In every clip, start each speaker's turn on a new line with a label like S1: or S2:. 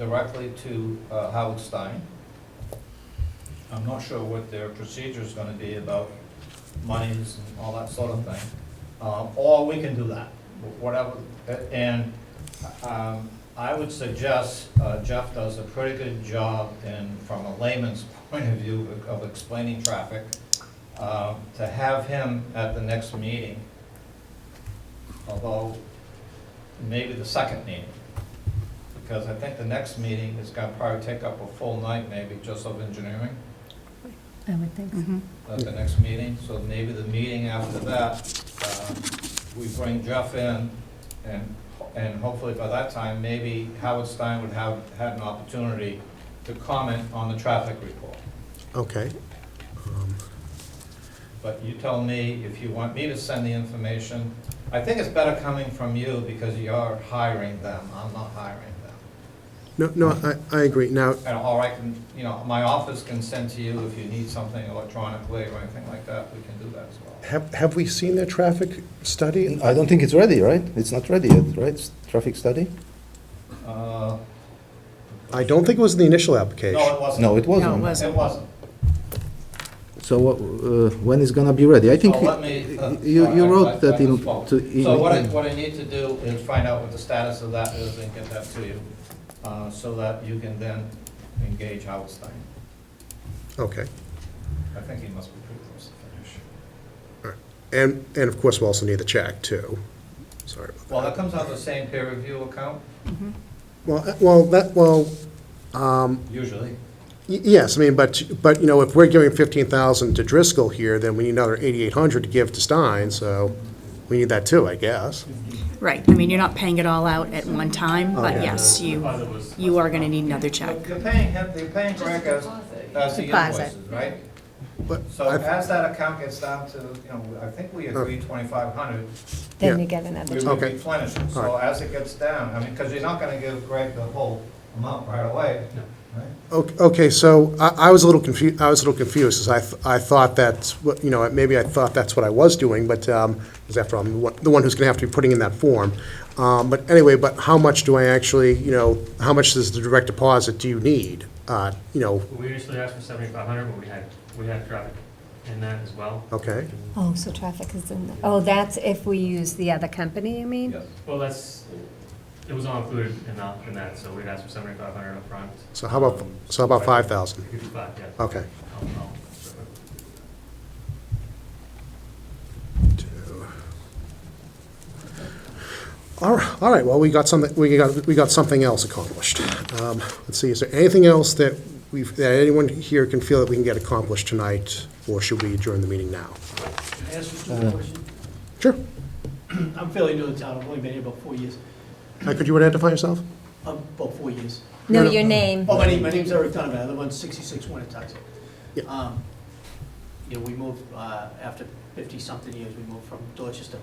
S1: directly to uh, Howard Stein. I'm not sure what their procedure is gonna be about monies and all that sort of thing. Um, Or we can do that, whatever. And um, I would suggest uh, Jeff does a pretty good job in, from a layman's point of view, of explaining traffic, uh, to have him at the next meeting, although maybe the second meeting because I think the next meeting is gonna probably take up a full night maybe just of engineering
S2: I would think so.
S1: at the next meeting, so maybe the meeting after that, uh, we bring Jeff in, and, and hopefully by that time, maybe Howard Stein would have, had an opportunity to comment on the traffic report.
S3: Okay. Um,
S1: But you tell me if you want me to send the information. I think it's better coming from you because you're hiring them, I'm not hiring them.
S3: No, no, I, I agree. Now,
S1: And, or I can, you know, my office can send to you if you need something electronically or anything like that, we can do that as well.
S3: have, have we seen their traffic study?
S4: I don't think it's ready, right? It's not ready yet, right? It's Traffic study?
S1: Uh,
S3: I don't think it was the initial application.
S1: No, it wasn't.
S4: No, it wasn't.
S2: No, it wasn't.
S1: It wasn't.
S4: So what, uh, when is gonna be ready? I think
S1: Well, let me. uh,
S4: you, you
S1: I- I-
S4: wrote
S1: I
S4: that in.
S1: misspoke.
S4: to-
S1: So what I,
S4: in-
S1: what I need to do is find out what the status of that is and get that to you, uh, so that you can then engage Howard Stein.
S3: Okay.
S1: I think he must be pretty close to finish.
S3: And, and of course, we also need the check, too. Sorry about that.
S1: Well, that comes out of the same peer review account,
S3: Well, uh, well, that, well,
S1: usually.
S3: y- yes, I mean, but, but, you know, if we're giving fifteen thousand to Driscoll here, then we need another eighty-eight hundred to give to Stein, so we need that too, I guess.
S2: Right, I mean, you're not paying it all out at one time, but yes, you, you are gonna need another check.
S1: You're paying him, you're paying Greg as, as the
S2: Deposit.
S1: invoices, right?
S3: But
S1: So as that account gets down to, you know, I think we agreed twenty-five hundred,
S3: Then
S5: Then
S3: you
S5: you get
S1: we
S5: another.
S1: would
S3: Okay.
S1: replenish it. So
S3: Alright.
S1: as it gets down, I mean, because you're not gonna give Greg the whole amount right away, right?
S3: Okay, okay, so I, I was a little confused, I was a little confused, as I, th- I thought that's, what you know, maybe I thought that's what I was doing, but, um, because after all, I'm the one- the one who's gonna have to be putting in that form. Um, but anyway, but how much do I actually, you know, how much does the direct deposit do you need? Uh, you know,
S6: We initially asked for seventy-five hundred, but we had, we had traffic in that as well.
S3: okay,
S5: Oh, so traffic is in, the- oh, that's if we use the other company, you mean?
S1: Yes.
S6: Well, that's, it was all included in that, in that, so we'd asked for seventy-five hundred upfront.
S3: so how about, so how about five thousand?
S6: We could do five, yeah.
S3: Okay.
S6: I'll- I'll-
S3: All right, all right, well, we got something, we got, we got something else accomplished. Um, let's see, is there anything else that we've, that anyone here can feel that we can get accomplished tonight, or should we adjourn the meeting now?
S7: Can I ask you just a question?
S3: Sure.
S7: I'm fairly new in town, I've only been here about four years,
S3: Uh, Could you identify yourself?
S7: Um, about four years.
S5: No,
S3: No, no.
S5: your name.
S7: Oh, my name, my name's Eric Donovan, I live on 66 Winnetonka.
S3: Yeah.
S7: Um You know, we moved, uh, after 50-something years, we moved from Dorchester.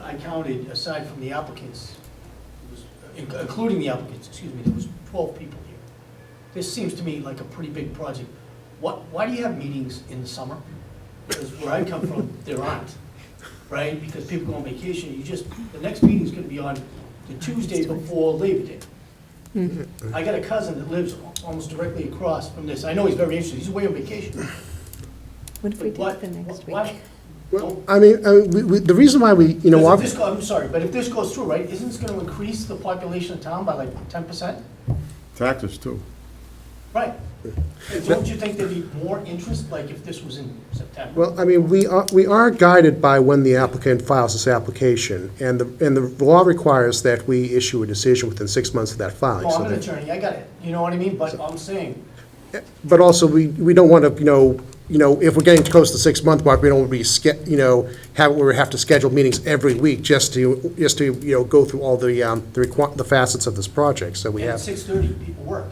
S7: I counted, aside from the applicants, it was- in- including the applicants, excuse me, there was 12 people here. This seems to me like a pretty big project. What, why do you have meetings in the summer? Because where I come from, there aren't, right? Because people go on vacation, you just, the next meeting's gonna be on the Tuesday before Labor Day. I got a cousin that lives al- almost directly across from this. I know he's very interested, he's away on vacation.
S5: What if we
S7: But
S5: do it
S7: what-
S5: the next
S7: what-
S5: week?
S3: Well, I mean, I mean, we- we- the reason why we, you know,
S7: Because if
S3: obvi-
S7: this go- I'm sorry, but if this goes through, right, isn't this gonna increase the population of town by like ten percent?
S8: Taxes too.
S7: Right. And Don't you think there'd be more interest, like if this was in September?
S3: well, I mean, we are, we are guided by when the applicant files this application, and the, and the law requires that we issue a decision within six months of that filing.
S7: Oh,
S3: so
S7: I'm an
S3: that-
S7: attorney, I got it, you know what I mean? But I'm saying,
S3: But also, we, we don't want to, you know, you know, if we're getting close to the six-month mark, we don't want to be, ske- you know, have, where we have to schedule meetings every week just to, just to, you know, go through all the, um, the requi- the facets of this project, so we
S7: at
S3: have,
S7: six thirty, people work.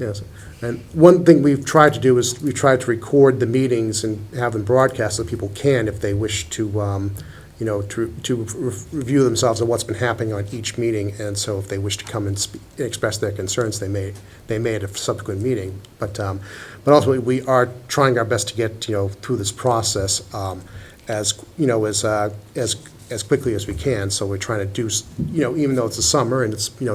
S3: yes. And one thing we've tried to do is, we tried to record the meetings and have them broadcast so people can, if they wish to, um, you know, to, to re- review themselves on what's been happening on each meeting, and so if they wish to come and spe- express their concerns, they may, they may at a subsequent meeting. But, um, but ultimately, we are trying our best to get, you know, through this process, um, as, you know, as, uh, as, as quickly as we can, so we're trying to do, s- you know, even though it's the summer and it's, you know,